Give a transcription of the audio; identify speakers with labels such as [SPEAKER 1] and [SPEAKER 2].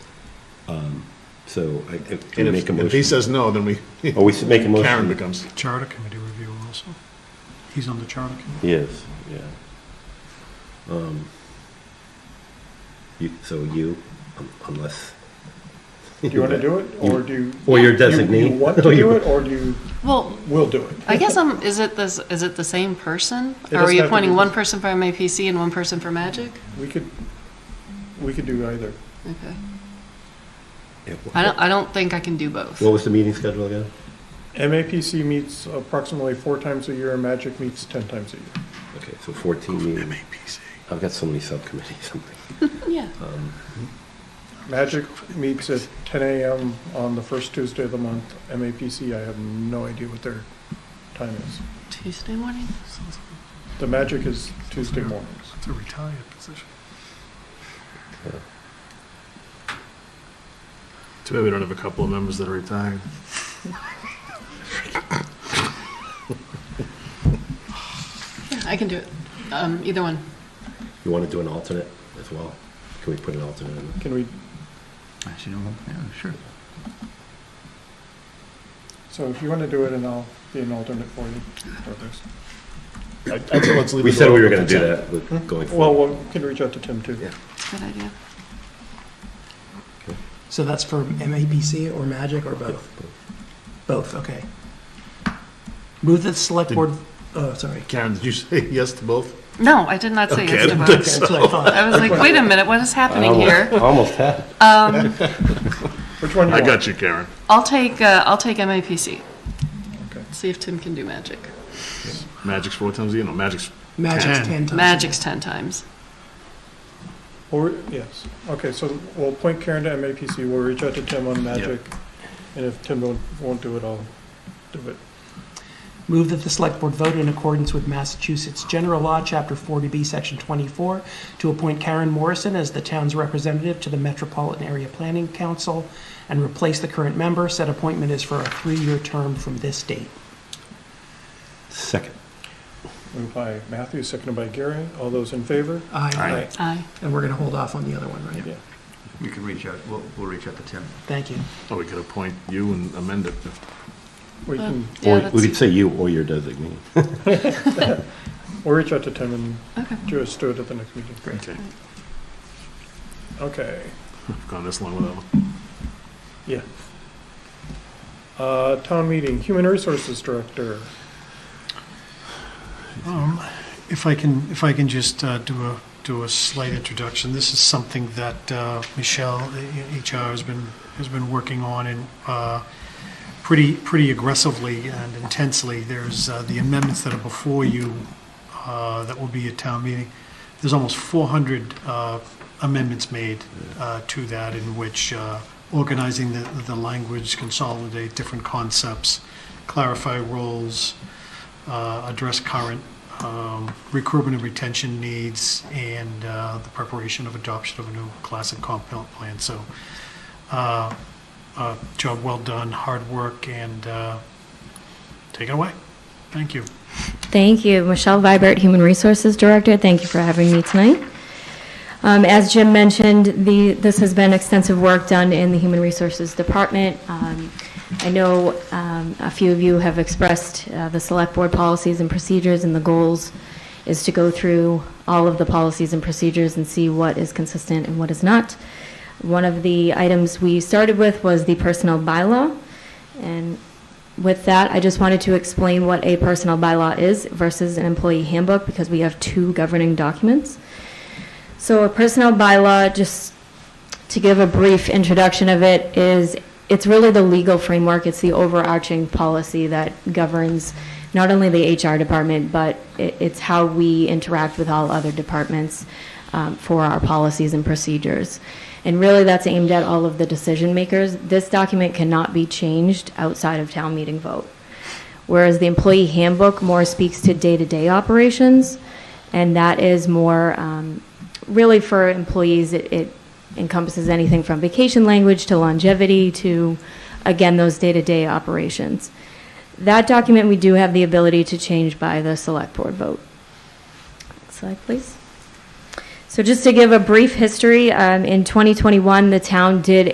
[SPEAKER 1] Um, So I if-
[SPEAKER 2] And
[SPEAKER 1] make
[SPEAKER 2] if,
[SPEAKER 1] a
[SPEAKER 2] if he
[SPEAKER 1] motion.
[SPEAKER 2] says no, then we,
[SPEAKER 1] Oh, we should make a motion.
[SPEAKER 2] Karen becomes,
[SPEAKER 3] Charter Committee review also. He's on the Charter Committee.
[SPEAKER 1] Yes, yeah. Um, You, so you, um, unless.
[SPEAKER 4] Do you want to do it, or do you?
[SPEAKER 1] Or your
[SPEAKER 4] you-
[SPEAKER 1] designee.
[SPEAKER 4] You want to do it, or do you
[SPEAKER 5] Well,
[SPEAKER 4] will do it?
[SPEAKER 5] I guess I'm, is it this, is it the same
[SPEAKER 4] It
[SPEAKER 5] person? Are
[SPEAKER 4] doesn't have
[SPEAKER 5] we
[SPEAKER 4] to be
[SPEAKER 5] appointing
[SPEAKER 4] the-
[SPEAKER 5] one person for MAPC and one person for Magic?
[SPEAKER 4] We could, we could do either.
[SPEAKER 5] Okay.
[SPEAKER 1] Yeah, wha-
[SPEAKER 5] I don't, I don't think I can do both.
[SPEAKER 1] What was the meeting schedule again?
[SPEAKER 4] MAPC meets approximately four times a year, and Magic meets 10 times a year.
[SPEAKER 1] Okay, so 14 meetings. I've got so many subcommittees, something.
[SPEAKER 5] Yeah.
[SPEAKER 4] Magic meets at 10 AM on the first Tuesday of the month. MAPC, I have no idea what their time is.
[SPEAKER 5] Tuesday morning?
[SPEAKER 3] Sounds
[SPEAKER 4] The Magic is Tuesday mornings.
[SPEAKER 3] It's a retired position.
[SPEAKER 2] too bad we don't have a couple of members that are retired.
[SPEAKER 5] Yeah, I can do it. Um, either one.
[SPEAKER 1] You want to do an alternate as well? Can we put an alternate in?
[SPEAKER 4] Can we,
[SPEAKER 6] Actually, no, yeah, sure.
[SPEAKER 4] so if you want to do it, and I'll be an alternate for you. or there's-
[SPEAKER 2] I- I'd say let's leave
[SPEAKER 1] We
[SPEAKER 2] it
[SPEAKER 1] said we were
[SPEAKER 2] open
[SPEAKER 1] going to do
[SPEAKER 2] ten.
[SPEAKER 1] that with going
[SPEAKER 4] Hmm? Well,
[SPEAKER 1] forward.
[SPEAKER 4] we can reach out to Tim, too.
[SPEAKER 1] Yeah.
[SPEAKER 5] Good idea.
[SPEAKER 7] So that's for MAPC or Magic or both? Both, okay. Move that the select
[SPEAKER 2] Did-
[SPEAKER 7] board, oh, sorry.
[SPEAKER 2] Karen, did you say yes to both?
[SPEAKER 5] No, I did not say
[SPEAKER 2] Okay,
[SPEAKER 5] yes
[SPEAKER 2] I
[SPEAKER 5] to
[SPEAKER 2] don't
[SPEAKER 7] Okay,
[SPEAKER 5] both.
[SPEAKER 7] That's what I thought.
[SPEAKER 5] I was like, wait a minute, what is
[SPEAKER 4] Oh.
[SPEAKER 5] happening here?
[SPEAKER 1] Almost had.
[SPEAKER 5] Um,
[SPEAKER 4] Which one you
[SPEAKER 2] I
[SPEAKER 4] want?
[SPEAKER 2] got you, Karen.
[SPEAKER 5] I'll take, uh, I'll take MAPC.
[SPEAKER 4] Okay.
[SPEAKER 5] See if Tim can do Magic.
[SPEAKER 2] Magic's four times a year, no, Magic's,
[SPEAKER 7] Magic's
[SPEAKER 3] Ten.
[SPEAKER 7] 10 times.
[SPEAKER 5] Magic's 10 times.
[SPEAKER 4] Or, yes, okay, so we'll point Karen to MAPC, we'll reach out to Tim on Magic, and if Tim don't, won't do it, I'll do it.
[SPEAKER 7] Move that the select board vote in accordance with Massachusetts General Law, Chapter 40B, Section 24, to appoint Karen Morrison as the town's representative to the Metropolitan Area Planning Council and replace the current member. Said appointment is for a three-year term from this date.
[SPEAKER 1] Second.
[SPEAKER 4] Moved by Matthew, seconded by Gary, all those in favor?
[SPEAKER 7] Aye.
[SPEAKER 5] Aye.
[SPEAKER 7] And we're going to hold off on the other one, right?
[SPEAKER 4] Yeah.
[SPEAKER 6] We can reach out, we'll, we'll reach out to Tim.
[SPEAKER 7] Thank you.
[SPEAKER 2] oh, we could appoint you and amend it.
[SPEAKER 4] We can,
[SPEAKER 5] Yeah,
[SPEAKER 1] Or we
[SPEAKER 5] that's-
[SPEAKER 1] could say you or your designee.
[SPEAKER 4] we'll reach out to Tim and
[SPEAKER 5] Okay.
[SPEAKER 4] just do it at the next meeting.
[SPEAKER 2] Okay,
[SPEAKER 4] Okay,
[SPEAKER 2] I've gone this long without one.
[SPEAKER 4] yeah. Uh, town meeting, Human Resources Director,
[SPEAKER 3] Um, If I can, if I can just uh, do a, do a slight introduction, this is something that uh, Michelle, uh, HR, has been, has been working on and uh, pretty, pretty aggressively and intensely. There's uh, the amendments that are before you uh, that will be at town meeting. There's almost 400 uh, amendments made uh, to that in which uh, organizing the, the language, consolidate different concepts, clarify roles, uh, address current um, recruitment and retention needs and uh, the preparation of adoption of a new class and comp plan. So, uh, uh, job well done, hard work, and uh, take it away. Thank you.
[SPEAKER 8] Thank you. Michelle Vibert, Human Resources Director. Thank you for having me tonight. Um, As Jim mentioned, the, this has been extensive work done in the Human Resources Department. Um, I know um, a few of you have expressed uh, the Select Board policies and procedures, and the goals is to go through all of the policies and procedures and see what is consistent and what is not. One of the items we started with was the personnel bylaw, and with that, I just wanted to explain what a personnel bylaw is versus an employee handbook, because we have two governing documents. So a personnel bylaw, just to give a brief introduction of it, is, it's really the legal framework, it's the overarching policy that governs not only the HR department, but i- it's how we interact with all other departments um, for our policies and procedures. And really, that's aimed at all of the decision makers. This document cannot be changed outside of town meeting vote whereas the employee handbook more speaks to day-to-day operations, and that is more um, really for employees. It, it encompasses anything from vacation language to longevity to, again, those day-to-day operations. That document we do have the ability to change by the select board vote. Next slide, please. So just to give a brief history, um, in 2021, the town did